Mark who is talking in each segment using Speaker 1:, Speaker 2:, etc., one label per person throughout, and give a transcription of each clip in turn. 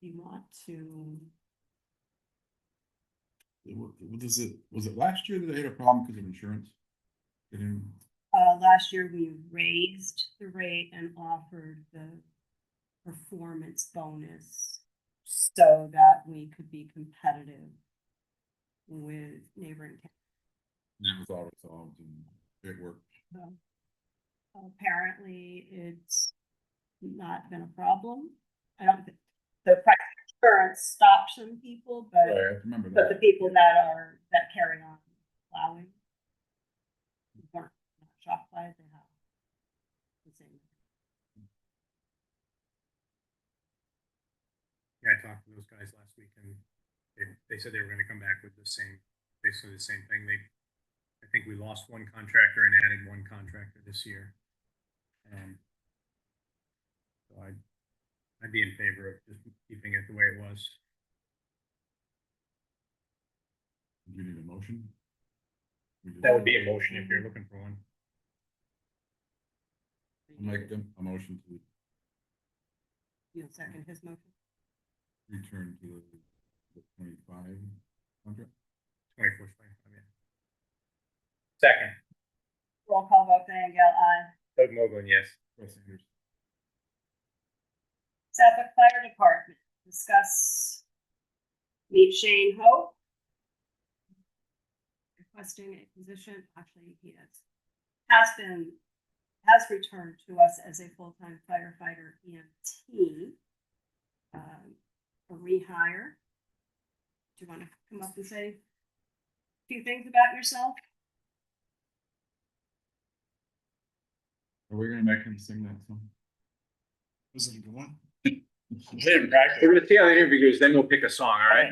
Speaker 1: you want to,
Speaker 2: What what is it, was it last year that they had a problem because of insurance? They didn't,
Speaker 1: uh, last year we raised the rate and offered the performance bonus so that we could be competitive with neighboring towns.
Speaker 2: that was all resolved and it worked.
Speaker 1: So, Apparently, it's not been a problem. I don't, thi- the price of insurance stopped some people,
Speaker 2: Right,
Speaker 1: but,
Speaker 2: I remember
Speaker 1: Uh, but the
Speaker 2: that.
Speaker 1: people that are, that carry on plowing weren't shocked by it, they have. the same.
Speaker 3: Yeah, I talked to those guys last week and they, they said they were gonna come back with the same, basically the same thing. They, I think we lost one contractor and added one contractor this year. Um, so I, I'd be in favor of just keeping it the way it was.
Speaker 2: Do you need a motion? We just-
Speaker 3: That would be a motion if you're looking for one.
Speaker 2: I'll Make them a motion to
Speaker 1: You'll second his motion?
Speaker 2: return to the twenty-five contract.
Speaker 3: Twenty-four, twenty-five, yeah. Second,
Speaker 1: Roll call vote, Diane Gale, aye.
Speaker 3: Doug Mogul, yes.
Speaker 2: Chris Ayers.
Speaker 1: Suffolk Fire Department, discuss meet Shane Hope. Requesting a position, actually, he has, has been, has returned to us as a full-time firefighter EMT. um, A rehire. Do you want to come up and say a few things about yourself?
Speaker 2: Are we gonna make him sing that song?
Speaker 4: Was it a good one?
Speaker 3: We're gonna see how the interview goes, then we'll pick a song, all right?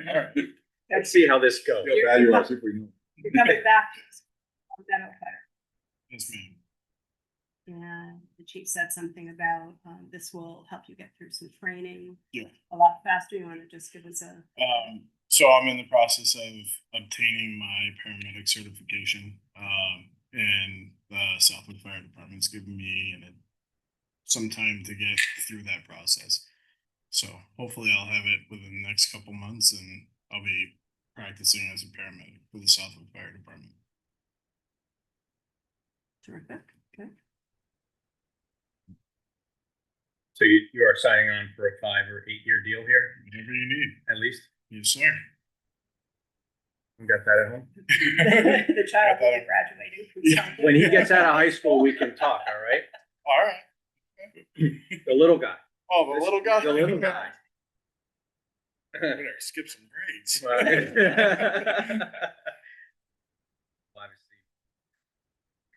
Speaker 3: Let's see how this goes.
Speaker 2: Feel bad, you're our super hero.
Speaker 1: You're coming back to us on that fire.
Speaker 4: Yes, ma'am.
Speaker 1: And the chief said something about, um, this will help you get through some training.
Speaker 4: Yeah.
Speaker 1: A lot faster. You wanna just give us a,
Speaker 4: Um, so I'm in the process of obtaining my paramedic certification. Um, and the Southwood Fire Department's given me an, some time to get through that process. So hopefully I'll have it within the next couple months and I'll be practicing as a paramedic for the Southwood Fire Department.
Speaker 1: terrific, okay?
Speaker 3: So you, you are signing on for a five or eight-year deal here,
Speaker 4: Whatever you need.
Speaker 3: at least?
Speaker 4: Yes, sir.
Speaker 3: You got that at home?
Speaker 1: The child will be graduating. from
Speaker 4: Yeah.
Speaker 1: Southwood.
Speaker 3: When he gets out of high school, we can talk, all right?
Speaker 4: All right.
Speaker 3: The little guy.
Speaker 4: Oh, the little guy.
Speaker 3: The little guy.
Speaker 4: I better skip some grades.
Speaker 3: Well, Obviously, you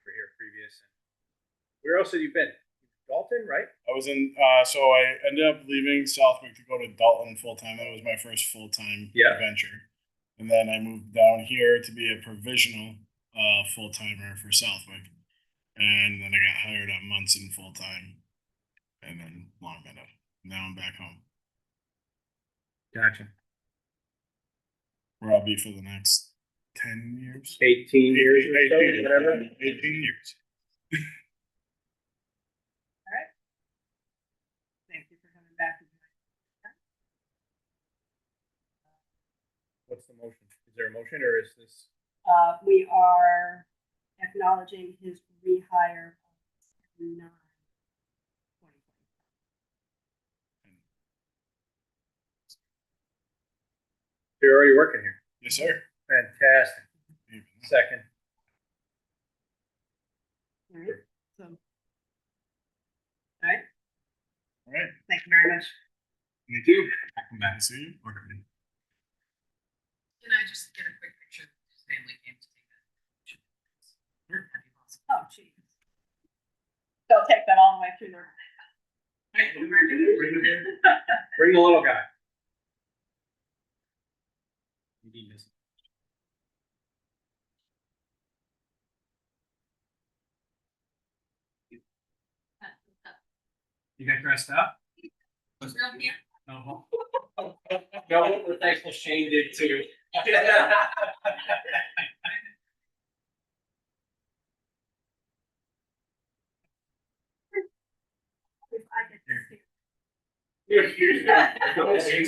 Speaker 3: were here previous. Where else have you been? Dalton, right?
Speaker 4: I was in, uh, so I ended up leaving Southwick to go to Dalton full time. That was my first full time
Speaker 3: Yeah.
Speaker 4: adventure. And then I moved down here to be a provisional uh, full timer for Southwick. And then I got hired at Munson full time and then Long Meadow. Now I'm back home
Speaker 3: Gotcha.
Speaker 4: where I'll be for the next 10 years.
Speaker 3: Eighteen years or so,
Speaker 4: 18,
Speaker 3: whatever.
Speaker 4: 18 years.
Speaker 1: Thank you for coming back.
Speaker 3: What's the motion? Is there a motion or is this?
Speaker 1: Uh, we are acknowledging his rehire. of 9.
Speaker 3: You're already working here.
Speaker 4: Yes, sir.
Speaker 3: Fantastic. Second.
Speaker 1: All right, so. All right,
Speaker 4: All right.
Speaker 1: thank you very much.
Speaker 4: Me too. Welcome back. See you.
Speaker 5: Can I just get a quick picture of his family came to take that? picture? That'd be awesome.
Speaker 1: Oh, geez. They'll take that all the way through their.
Speaker 5: Right,
Speaker 3: Bring him in. Bring the little guy. You need this. You got dressed up? Uh-huh. No. No, we're thankful Shane did too.
Speaker 1: If I get to see
Speaker 3: Here's- here's-